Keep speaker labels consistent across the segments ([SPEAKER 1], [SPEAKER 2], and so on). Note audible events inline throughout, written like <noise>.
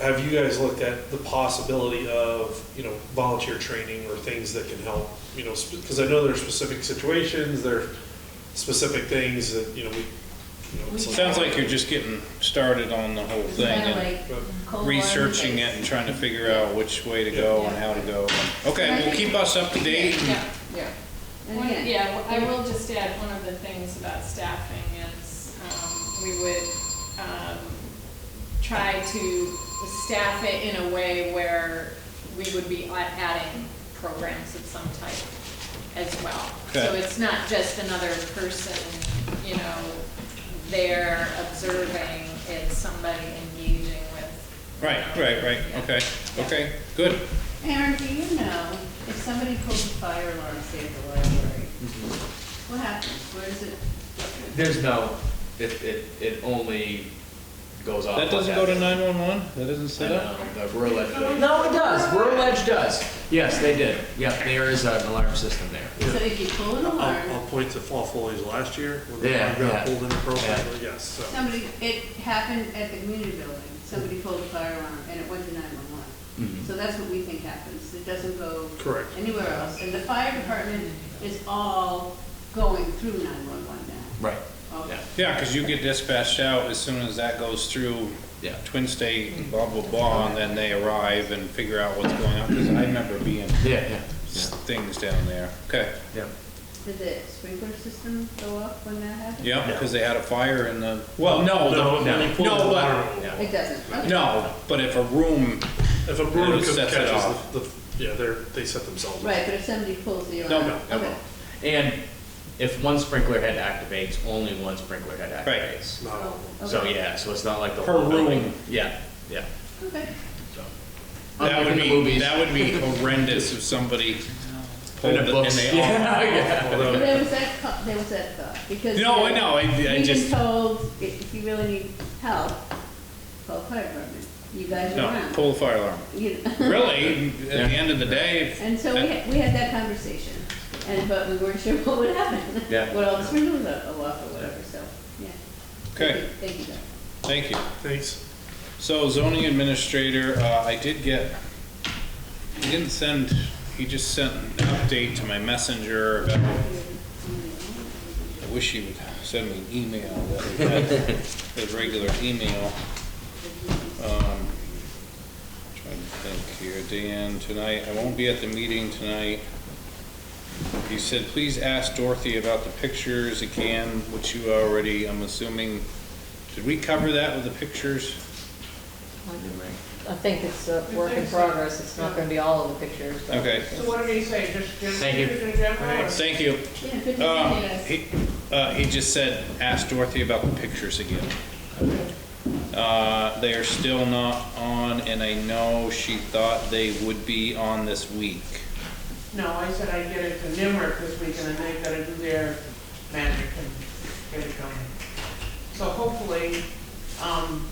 [SPEAKER 1] have you guys looked at the possibility of, you know, volunteer training or things that can help, you know, because I know there are specific situations, there are specific things that, you know, we, you know,
[SPEAKER 2] We-
[SPEAKER 1] it's
[SPEAKER 3] Sounds like you're just getting started on the whole thing
[SPEAKER 2] Kinda
[SPEAKER 3] and
[SPEAKER 2] like cold
[SPEAKER 3] uh, researching
[SPEAKER 2] water
[SPEAKER 3] it and trying to figure out which way to go and how to go.
[SPEAKER 2] And I
[SPEAKER 3] Okay, well,
[SPEAKER 2] think-
[SPEAKER 3] keep us up to date. and-
[SPEAKER 4] Yeah,
[SPEAKER 5] Yeah.
[SPEAKER 4] One- yeah, I will just add, one of the things about staffing is, um, we would, um, try to staff it in a way where we would be a- adding programs of some type as well. So
[SPEAKER 3] Okay.
[SPEAKER 4] it's not just another person, you know, there observing, it's somebody engaging with.
[SPEAKER 3] Right, right, right, okay, okay, good.
[SPEAKER 2] Aaron, do you know if somebody pulled a fire alarm, say at the library,
[SPEAKER 1] Mm-hmm.
[SPEAKER 2] what happens? Where is it?
[SPEAKER 6] There's no, it, it, it only goes off.
[SPEAKER 3] That doesn't go
[SPEAKER 6] like
[SPEAKER 3] to
[SPEAKER 6] that.
[SPEAKER 3] 911? That doesn't set up?
[SPEAKER 6] I know, the rural edge. No, it does, rural edge does. Yes, they did. Yeah, there is an alarm system there.
[SPEAKER 2] So if you pull an
[SPEAKER 1] I'll, I'll
[SPEAKER 2] alarm,
[SPEAKER 1] point to fall foliage last year, when we
[SPEAKER 6] Yeah,
[SPEAKER 1] got
[SPEAKER 6] yeah.
[SPEAKER 1] pulled in the program,
[SPEAKER 6] Yeah.
[SPEAKER 1] yes, so.
[SPEAKER 2] somebody, it happened at the community building, somebody pulled a fire alarm and it went to nine-one-one.
[SPEAKER 6] Mhm.
[SPEAKER 2] So that's what we think happens, it doesn't go.
[SPEAKER 1] Mm-hmm. Correct.
[SPEAKER 2] Anywhere else, and the fire department is all going through nine-one-one now.
[SPEAKER 6] Right,
[SPEAKER 2] All-
[SPEAKER 6] yeah,
[SPEAKER 3] Yeah, because you get dispatched out as soon as that goes through
[SPEAKER 6] yeah.
[SPEAKER 3] Twin State, and blah, blah, blah, and then they arrive and figure out what's going on, because I remember being
[SPEAKER 6] Yeah, yeah,
[SPEAKER 3] s- things down there. Okay,
[SPEAKER 6] yeah.
[SPEAKER 2] Did the sprinkler system go up when that happened?
[SPEAKER 3] yeah, because they had a fire in the, well, no,
[SPEAKER 1] No,
[SPEAKER 3] the-
[SPEAKER 1] when you pull
[SPEAKER 3] no,
[SPEAKER 1] the
[SPEAKER 3] but-
[SPEAKER 1] alarm,
[SPEAKER 2] It doesn't, okay.
[SPEAKER 3] no, but if a room,
[SPEAKER 1] if a
[SPEAKER 3] Then
[SPEAKER 1] broom
[SPEAKER 3] it
[SPEAKER 1] catches
[SPEAKER 3] sets it off.
[SPEAKER 1] the, the, yeah, they're, they set themselves up.
[SPEAKER 2] Right, but if somebody pulls the
[SPEAKER 3] no,
[SPEAKER 2] alarm.
[SPEAKER 3] no, no,
[SPEAKER 2] Okay.
[SPEAKER 6] And if one sprinkler head activates, only one sprinkler head
[SPEAKER 3] Right.
[SPEAKER 6] activates.
[SPEAKER 1] Not all of them.
[SPEAKER 2] Oh, Okay.
[SPEAKER 6] So, yeah, so it's not like the
[SPEAKER 3] Per
[SPEAKER 6] whole building.
[SPEAKER 3] room.
[SPEAKER 6] Yeah, yeah,
[SPEAKER 2] Okay.
[SPEAKER 6] so.
[SPEAKER 3] that
[SPEAKER 6] Unlike
[SPEAKER 3] would
[SPEAKER 6] in the
[SPEAKER 3] be,
[SPEAKER 6] movies.
[SPEAKER 3] that would
[SPEAKER 6] <laughs>
[SPEAKER 3] be horrendous if somebody pulled
[SPEAKER 6] In
[SPEAKER 3] it
[SPEAKER 6] the
[SPEAKER 3] and
[SPEAKER 6] books.
[SPEAKER 3] they all
[SPEAKER 6] <laughs>
[SPEAKER 3] <laughs>
[SPEAKER 6] Yeah, yeah.
[SPEAKER 2] But
[SPEAKER 6] <laughs>
[SPEAKER 2] There was that, co- there was that thought, because.
[SPEAKER 3] No, I know, I- I
[SPEAKER 2] We've been
[SPEAKER 3] just-
[SPEAKER 2] told, i- if you really need help, call the fire department, you guys are
[SPEAKER 3] No,
[SPEAKER 2] around.
[SPEAKER 3] pull the fire alarm.
[SPEAKER 2] You know. <laughs>
[SPEAKER 3] Really, at the
[SPEAKER 6] Yeah.
[SPEAKER 3] end of the day.
[SPEAKER 2] And so we, had- we had that conversation, and, but we weren't sure <laughs> what would happen.
[SPEAKER 6] Yeah.
[SPEAKER 2] What all the sprinklers would go off or whatever, so, yeah.
[SPEAKER 3] Okay,
[SPEAKER 2] Thank you, Doug.
[SPEAKER 3] thank you.
[SPEAKER 1] Thanks.
[SPEAKER 3] So zoning administrator, uh, I did get, he didn't send, he just sent an update to my messenger about, I wish he would send me an email, that we had his regular email. Um, Trying to think here, Dan, tonight, I won't be at the meeting tonight. He said, please ask Dorothy about the pictures again, which you already, I'm assuming, did we cover that with the pictures?
[SPEAKER 7] I think it's a work in progress, it's not gonna be all of the pictures, but.
[SPEAKER 3] Okay.
[SPEAKER 5] So what did he say, just, just
[SPEAKER 6] Thank you.
[SPEAKER 5] in general? or-
[SPEAKER 3] Thank you.
[SPEAKER 2] Yeah, good
[SPEAKER 3] Um,
[SPEAKER 2] to see you guys.
[SPEAKER 3] He uh, he just said, ask Dorothy about the pictures again. Uh, They are still not on, and I know she thought they would be on this week.
[SPEAKER 5] No, I said I'd get it to Nimmer this week, and then they've got to do their magic and get it going. So hopefully, um,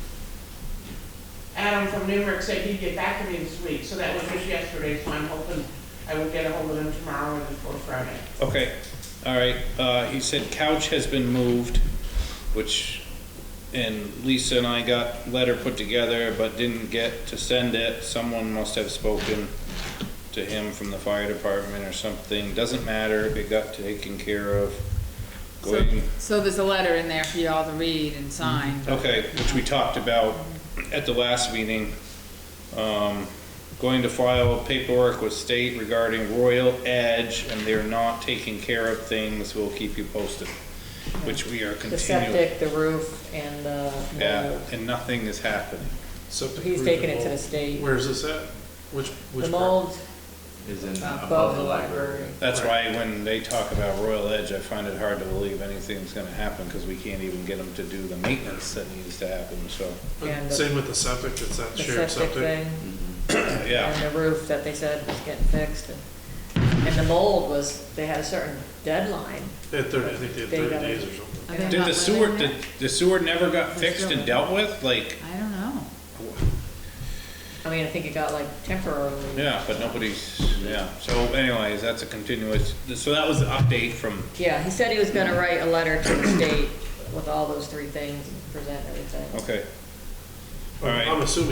[SPEAKER 5] Adam from Nimmer said he'd get back to me this week, so that was just yesterday, so I'm hoping I will get a hold of him tomorrow or before Friday.
[SPEAKER 3] Okay, all right. Uh, He said couch has been moved, which, and Lisa and I got letter put together, but didn't get to send it. Someone must have spoken to him from the fire department or something. Doesn't matter, it got taken care of. Go ahead and
[SPEAKER 4] So there's a letter in there for you all to read and sign.
[SPEAKER 3] Okay, which we talked about at the last meeting. Um, Going to file paperwork with state regarding Royal Edge, and they're not taking care of things, we'll keep you posted, which we are
[SPEAKER 7] The
[SPEAKER 3] continuing.
[SPEAKER 7] septic, the roof, and the
[SPEAKER 3] Yeah,
[SPEAKER 7] mold.
[SPEAKER 3] and nothing is happening.
[SPEAKER 1] Septic
[SPEAKER 7] He's
[SPEAKER 1] roof
[SPEAKER 7] taking
[SPEAKER 1] and
[SPEAKER 7] it to the
[SPEAKER 1] mold.
[SPEAKER 7] state.
[SPEAKER 1] Where's this at? Which, which? part?
[SPEAKER 7] The mold
[SPEAKER 6] Is in
[SPEAKER 7] Uh,
[SPEAKER 6] uh,
[SPEAKER 7] above the library.
[SPEAKER 3] That's why when they talk about Royal Edge, I find it hard to believe anything's gonna happen, because we can't even get them to do the maintenance that needs to happen, so,
[SPEAKER 7] and the-
[SPEAKER 1] Same with the septic, it's that
[SPEAKER 7] The
[SPEAKER 1] shared
[SPEAKER 7] septic
[SPEAKER 1] septic.
[SPEAKER 7] thing,
[SPEAKER 3] yeah.
[SPEAKER 7] and the roof that they said was getting fixed, and, and the mold was, they had a certain deadline.
[SPEAKER 1] They had thirty, I think they had
[SPEAKER 7] They
[SPEAKER 1] thirty
[SPEAKER 7] gotta-
[SPEAKER 1] days or something.
[SPEAKER 4] Are they
[SPEAKER 3] Did
[SPEAKER 4] not
[SPEAKER 3] the
[SPEAKER 4] living
[SPEAKER 3] sewer,
[SPEAKER 4] there?
[SPEAKER 3] did the sewer never got
[SPEAKER 7] They're
[SPEAKER 3] fixed
[SPEAKER 7] still-
[SPEAKER 3] and dealt with? Like,
[SPEAKER 4] I don't know.
[SPEAKER 7] I mean, I think it got like temporarily,
[SPEAKER 3] Yeah, but nobody's, yeah, so anyways, that's a continuous, so that was the update from,
[SPEAKER 7] yeah, he said he was gonna write a letter to the state with all those three things and present everything.
[SPEAKER 3] okay. All right.
[SPEAKER 1] I'm assuming